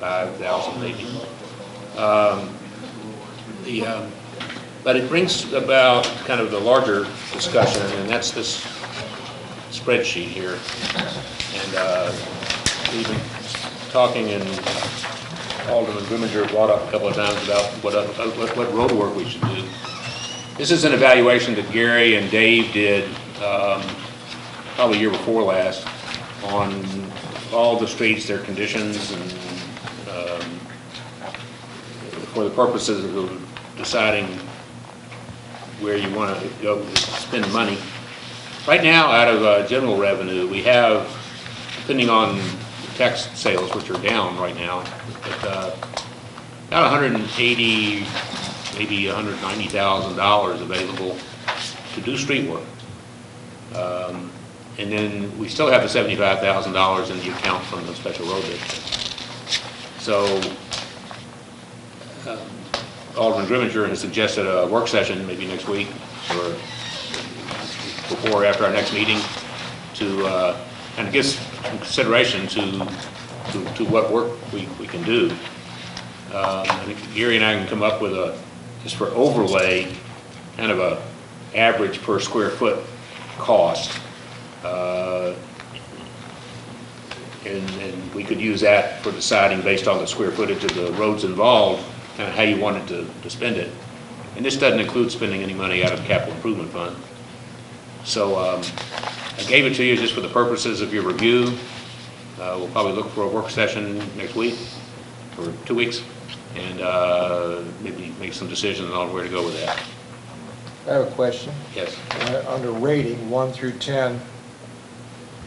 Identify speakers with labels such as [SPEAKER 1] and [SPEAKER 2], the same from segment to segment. [SPEAKER 1] 5,000 maybe. Um, The, um, but it brings about kind of the larger discussion, and that's this spreadsheet here. And uh, we've been talking, and Alderman Grimminger brought up a couple of times about what, uh, what what road work we should do. This is an evaluation that Gary and Dave did um, probably year before last on all the streets, their conditions, and um, for the purposes of deciding where you want to go spend money. Right now, out of uh, general revenue, we have, depending on tax sales, which are down right now, but uh, about 180, maybe 190,000 dollars available to do street work. Um, And then we still have the 75,000 dollars in the account from the special road bid. So um, Alderman Grimminger has suggested a work session, maybe next week, or before or after our next meeting, to, uh, kind of give some consideration to, to to what work we, we can do. Um, I think Gary and I can come up with a, just for overlay, kind of a average per square foot cost. uh, and, and we could use that for deciding based on the square footage of the roads involved, kind of how you wanted to, to spend it. And this doesn't include spending any money out of the capital improvement fund. So, um, I gave it to you just for the purposes of your review. Uh, we'll probably look for a work session next week, or two weeks, and, uh, maybe make some decisions on where to go with that.
[SPEAKER 2] I have a question.
[SPEAKER 1] Yes,
[SPEAKER 2] Uh, Under rating, one through 10,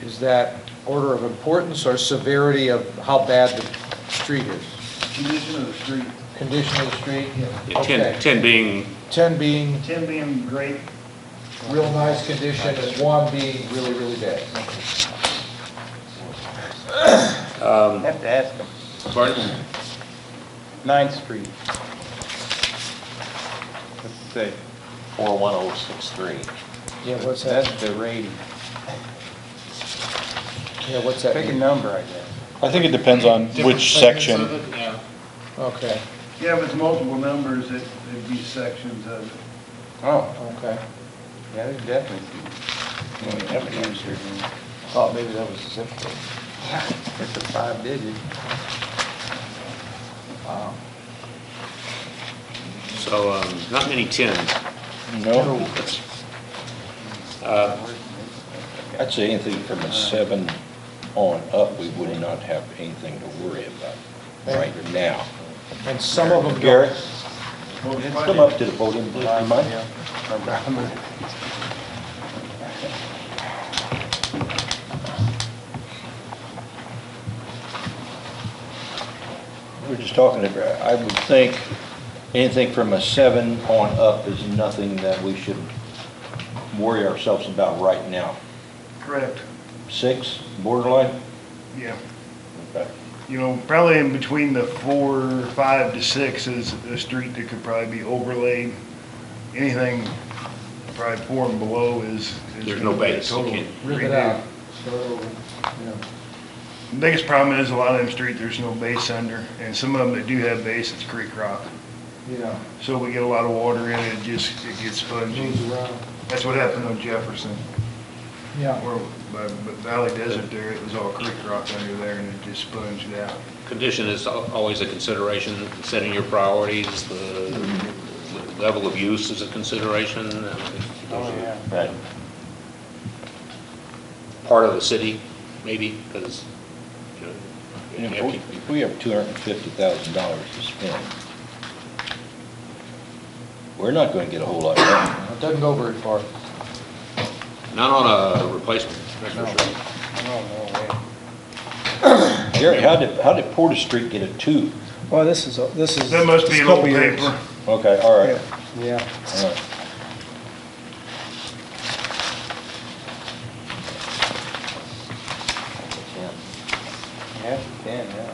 [SPEAKER 2] is that order of importance or severity of how bad the street is?
[SPEAKER 3] Condition of the street,
[SPEAKER 2] Condition of the street?
[SPEAKER 1] Yeah, ten,
[SPEAKER 2] Okay.
[SPEAKER 1] ten being,
[SPEAKER 2] 10 being
[SPEAKER 3] ten being great,
[SPEAKER 2] real nice condition and one being really, really bad.
[SPEAKER 4] Have to ask them.
[SPEAKER 1] pardon?
[SPEAKER 4] Ninth Street. Let's see, 41063.
[SPEAKER 2] Yeah, what's
[SPEAKER 4] That's
[SPEAKER 2] that?
[SPEAKER 4] the rating.
[SPEAKER 2] Yeah, what's that
[SPEAKER 4] Pick a
[SPEAKER 2] mean?
[SPEAKER 4] number, I guess.
[SPEAKER 5] I think it depends on which section.
[SPEAKER 2] Okay,
[SPEAKER 3] yeah, if it's multiple numbers, it- it'd be sections of it.
[SPEAKER 4] Oh,
[SPEAKER 2] okay.
[SPEAKER 4] yeah, there's definitely some. I mean, that's the answer.
[SPEAKER 2] Oh, maybe that was the zip code.
[SPEAKER 4] It's a five digit.
[SPEAKER 1] So, um, not many tens.
[SPEAKER 5] No,
[SPEAKER 1] Uh,
[SPEAKER 6] I'd say anything from a seven on up, we would not have anything to worry about right now.
[SPEAKER 2] And some of them
[SPEAKER 6] Garrett,
[SPEAKER 2] go,
[SPEAKER 3] Well, it's
[SPEAKER 6] come
[SPEAKER 3] funny.
[SPEAKER 6] up to the podium, please, you mind? We're just talking, about- I would think anything from a seven on up is nothing that we should worry ourselves about right now.
[SPEAKER 3] Correct,
[SPEAKER 6] Six, borderline?
[SPEAKER 3] yeah.
[SPEAKER 6] Okay.
[SPEAKER 3] You know, probably in between the four, five to six is a street that could probably be overlaid. Anything probably four and below is. is
[SPEAKER 1] There's no
[SPEAKER 3] gonna be a
[SPEAKER 1] base, you
[SPEAKER 3] total
[SPEAKER 1] can't-
[SPEAKER 2] rip it
[SPEAKER 3] redo.
[SPEAKER 2] out. So, yeah.
[SPEAKER 3] The Biggest problem is a lot of them street, there's no base under, and some of them that do have base, it's creek rock.
[SPEAKER 2] Yeah,
[SPEAKER 3] So we get a lot of water in it, it just, it gets spongy.
[SPEAKER 2] moves around.
[SPEAKER 3] That's what happened on Jefferson.
[SPEAKER 2] Yeah,
[SPEAKER 3] Or by by Valley Desert there, it was all creek rock under there and it just sponged out.
[SPEAKER 1] Condition is al- always a consideration, setting your priorities, the the level of use is a consideration. and I think those are
[SPEAKER 6] Right.
[SPEAKER 1] Part of the city, maybe, because, you know,
[SPEAKER 6] And
[SPEAKER 1] you have to-
[SPEAKER 6] If we- if we have two hundred and fifty thousand dollars to spend, we're not gonna get a whole lot done.
[SPEAKER 2] it doesn't go very far.
[SPEAKER 1] not on a replacement, that's for sure.
[SPEAKER 4] Oh, no way.
[SPEAKER 6] Gary, how did, how did Porter Street get a two?
[SPEAKER 7] Well, this is, this is.
[SPEAKER 3] That must be
[SPEAKER 7] it's
[SPEAKER 3] an
[SPEAKER 7] couple
[SPEAKER 3] old
[SPEAKER 7] years.
[SPEAKER 3] paper.
[SPEAKER 6] Okay, all right,
[SPEAKER 2] Yeah.
[SPEAKER 6] all right.
[SPEAKER 4] Yeah, ten, yeah.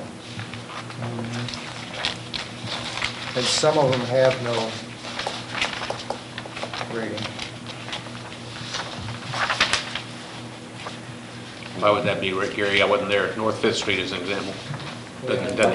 [SPEAKER 2] And some of them have no rating.
[SPEAKER 1] Why would that be, Rick Gary? I wasn't there. North Fifth Street is an example. Doesn't- doesn't